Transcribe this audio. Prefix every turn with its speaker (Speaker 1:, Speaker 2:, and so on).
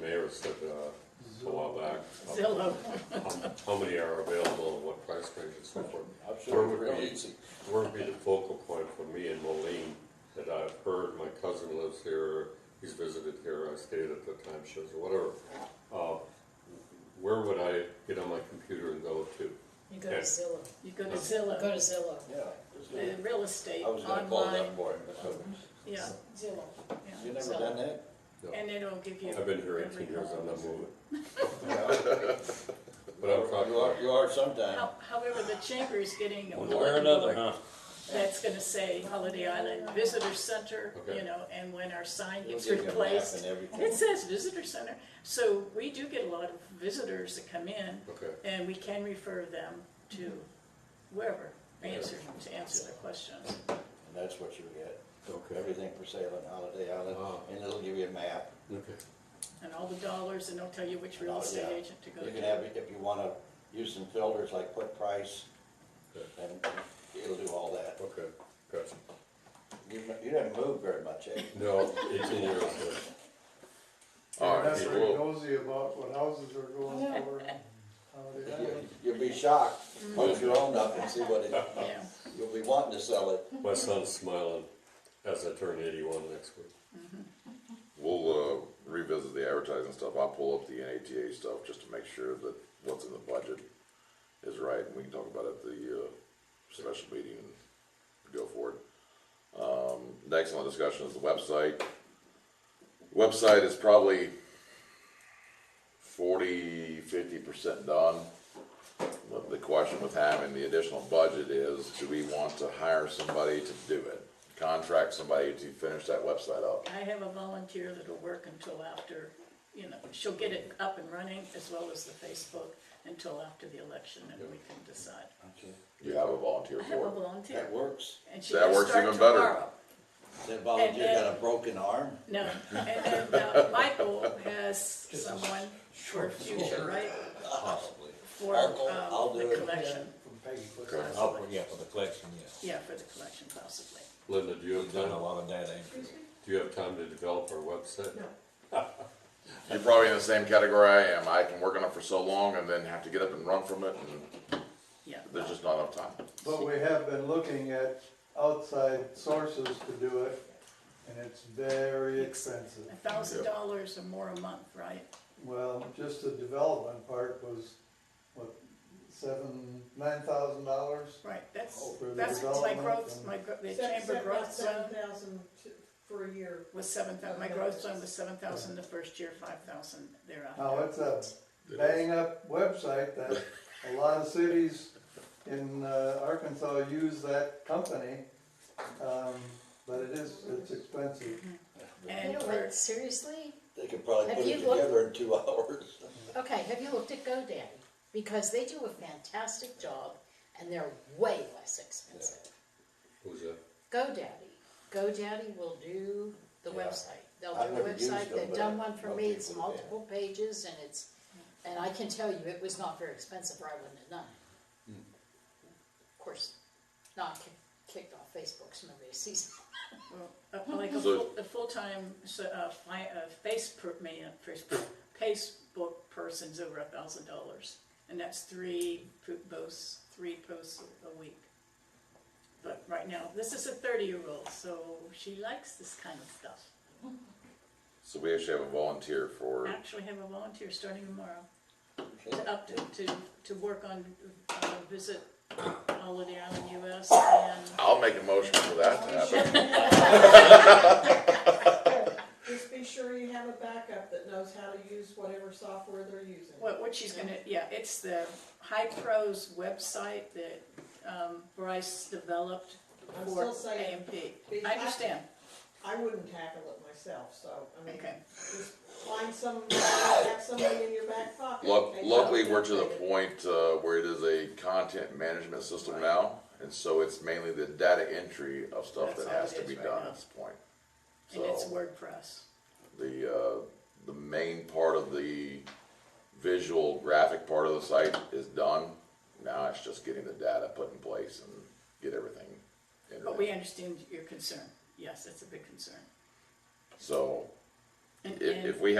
Speaker 1: mayor said, uh, a while back.
Speaker 2: Zillow.
Speaker 1: How- How many are available and what price range and so forth.
Speaker 3: I'm sure it's
Speaker 1: Where would
Speaker 3: real
Speaker 1: be-
Speaker 3: easy.
Speaker 1: Where would be the focal point for me and Moline that I've heard, my cousin lives here, he's visited here, I stayed at the timeshares or whatever. Uh, Where would I get on my computer and go to?
Speaker 4: You go to
Speaker 1: Yes.
Speaker 4: Zillow,
Speaker 2: You go to
Speaker 4: go
Speaker 2: Zillow,
Speaker 4: to Zillow.
Speaker 3: Yeah. it's
Speaker 2: the
Speaker 3: good.
Speaker 2: real estate
Speaker 3: I was gonna call
Speaker 2: online,
Speaker 3: that boy.
Speaker 2: yeah,
Speaker 4: Zillow.
Speaker 3: You
Speaker 2: yeah.
Speaker 3: never
Speaker 4: So-
Speaker 3: done that?
Speaker 2: And it'll give you.
Speaker 1: I've been here
Speaker 2: every
Speaker 1: eighteen years, I'm
Speaker 2: home.
Speaker 1: not moving.
Speaker 3: Yeah.
Speaker 1: But I'm talking
Speaker 3: You are,
Speaker 1: about,
Speaker 3: you are sometime.
Speaker 2: How- However, the chamber is getting a
Speaker 5: One way or another,
Speaker 2: warning
Speaker 5: huh?
Speaker 2: that's gonna say Holiday Island Visitor Center, you
Speaker 1: Okay.
Speaker 2: know, and when our sign
Speaker 3: You'll
Speaker 2: gets
Speaker 3: get your map
Speaker 2: replaced.
Speaker 3: and everything.
Speaker 2: It says Visitor Center, so we do get a lot of visitors that come in,
Speaker 1: okay,
Speaker 2: and we can refer them to wherever, answer, to answer their questions.
Speaker 3: And that's what you get.
Speaker 1: okay,
Speaker 3: Everything for sale on Holiday Island,
Speaker 1: Wow.
Speaker 3: and it'll give you a map.
Speaker 1: okay.
Speaker 2: And all the dollars, and they'll tell you which real
Speaker 3: Oh,
Speaker 2: estate
Speaker 3: yeah.
Speaker 2: agent to go
Speaker 3: You can have,
Speaker 2: to.
Speaker 3: it if you wanna use some filters like what price,
Speaker 1: Good.
Speaker 3: and it'll do all that.
Speaker 1: Okay, gotcha.
Speaker 3: You, you didn't move very much, eh?
Speaker 1: No, eighteen years,
Speaker 6: Yeah,
Speaker 1: All right,
Speaker 6: Oh, That's very
Speaker 1: people,
Speaker 6: nosy about what houses are going for and how they have
Speaker 3: You-
Speaker 6: it.
Speaker 3: You'll be shocked,
Speaker 2: Mm.
Speaker 3: once you own up and see what it,
Speaker 2: Yeah,
Speaker 3: you'll be wanting to sell it.
Speaker 1: my son's smiling as I turn eighty-one next week.
Speaker 7: We'll uh, revisit the advertising stuff. I'll pull up the NATA stuff just to make sure that what's in the budget is right, and we can talk about it at the uh, special meeting and go for it. Um, next on the discussion is the website. Website is probably 40, 50% done. But the question with having the additional budget is, do we want to hire somebody to do it? Contract somebody to finish that website up?
Speaker 2: Um, I have a volunteer that'll work until after, you know, she'll get it up and running, as well as the Facebook, until after the election, and we can decide.
Speaker 7: You have a volunteer
Speaker 2: I have a
Speaker 7: for it.
Speaker 2: volunteer,
Speaker 3: That works.
Speaker 2: and she
Speaker 7: That
Speaker 2: can
Speaker 7: works
Speaker 2: start
Speaker 7: even better.
Speaker 2: tomorrow.
Speaker 3: That volunteer
Speaker 2: And-
Speaker 3: got a broken arm?
Speaker 2: No, and then uh, Michael has someone for future, right,
Speaker 3: Possibly.
Speaker 2: for
Speaker 3: I'll go- I'll
Speaker 2: um,
Speaker 3: do
Speaker 2: the
Speaker 3: it.
Speaker 2: collection,
Speaker 6: From Peggy Clifford.
Speaker 1: Okay.
Speaker 5: Oh, yeah, for the collection, yes.
Speaker 2: yeah, for the collection possibly.
Speaker 1: Linda, do you have
Speaker 5: We've done a
Speaker 1: time,
Speaker 5: lot of data entry.
Speaker 1: do you have time to develop our website?
Speaker 7: You're probably in the same category I am. I can work on it for so long and then have to get up and run from it, and
Speaker 2: Yeah,
Speaker 7: there's just not enough time.
Speaker 6: But we have been looking at outside sources to do it, and it's very expensive.
Speaker 2: a thousand dollars or more a month, right?
Speaker 6: Well, just the development part was, what, seven, nine thousand dollars?
Speaker 2: Right,
Speaker 3: Oh,
Speaker 2: that's,
Speaker 6: For the
Speaker 2: that's my
Speaker 6: development
Speaker 2: growth,
Speaker 6: and-
Speaker 2: my, gro- the
Speaker 8: Set-
Speaker 2: chamber
Speaker 8: set
Speaker 2: growth
Speaker 8: Seven
Speaker 2: zone
Speaker 8: thousand for a year.
Speaker 2: was seven thousand. my growth zone was seven thousand the first year, five thousand
Speaker 6: Now,
Speaker 2: thereafter.
Speaker 6: Oh, it's a bang-up website that a lot of cities in uh, Arkansas use that company, um, but it is, it's expensive.
Speaker 4: You
Speaker 2: And
Speaker 4: know
Speaker 2: for,
Speaker 4: what, seriously?
Speaker 3: They could probably
Speaker 4: Have
Speaker 3: put it
Speaker 4: you looked-
Speaker 3: together in two hours.
Speaker 4: Okay, have you looked at GoDaddy? Because they do a fantastic job and they're way less expensive.
Speaker 1: Who's that?
Speaker 4: GoDaddy, GoDaddy will do the
Speaker 3: Yeah.
Speaker 4: website. They'll
Speaker 3: I've
Speaker 4: do a
Speaker 3: never used
Speaker 4: website,
Speaker 3: them,
Speaker 4: they've
Speaker 3: but
Speaker 4: done
Speaker 3: I
Speaker 4: one for
Speaker 3: know
Speaker 4: me, it's
Speaker 3: people that-
Speaker 4: multiple pages and it's, and I can tell you, it was not very expensive or I wouldn't have done it.
Speaker 3: Hmm.
Speaker 4: Of course, not kick- kicked off Facebook, so nobody sees it.
Speaker 2: well, uh, like a
Speaker 7: So-
Speaker 2: full, a full-time, so, uh, fi- uh, face per, man, Facebook, Facebook person's over a thousand dollars. And that's three po- posts, three posts a week. But right now, this is a thirty-year-old, so she likes this kind of stuff.
Speaker 7: So we actually have a volunteer for,
Speaker 2: Actually have a volunteer starting tomorrow. to up to, to, to work on, uh, visit Holiday Island US and
Speaker 7: I'll make a motion for that to happen.
Speaker 8: Just be sure you have a backup that knows how to use whatever software they're using.
Speaker 2: what, what she's gonna, yeah, it's the High Pros website that, um, Bryce developed
Speaker 8: I'm
Speaker 2: for
Speaker 8: still saying,
Speaker 2: AMP.
Speaker 8: be
Speaker 2: I understand,
Speaker 8: I wouldn't tackle it myself, so, I mean,
Speaker 2: okay,
Speaker 8: just find some, have somebody in your back pocket.
Speaker 7: Luck-
Speaker 8: They
Speaker 7: Luckily,
Speaker 8: don't
Speaker 7: we're to the
Speaker 8: update it.
Speaker 7: point uh, where it is a content management system now, and so it's mainly the data entry of stuff
Speaker 2: That's
Speaker 7: that
Speaker 2: all
Speaker 7: has
Speaker 2: it
Speaker 7: to
Speaker 2: is
Speaker 7: be
Speaker 2: right
Speaker 7: done
Speaker 2: now.
Speaker 7: at this point.
Speaker 2: and it's
Speaker 7: So-
Speaker 2: WordPress,
Speaker 7: the uh, the main part of the visual graphic part of the site is done. Now it's just getting the data put in place and get everything. in
Speaker 2: but
Speaker 7: there.
Speaker 2: we understand your concern, yes, it's a big concern.
Speaker 7: so
Speaker 2: And-
Speaker 7: if,
Speaker 2: and-
Speaker 7: if we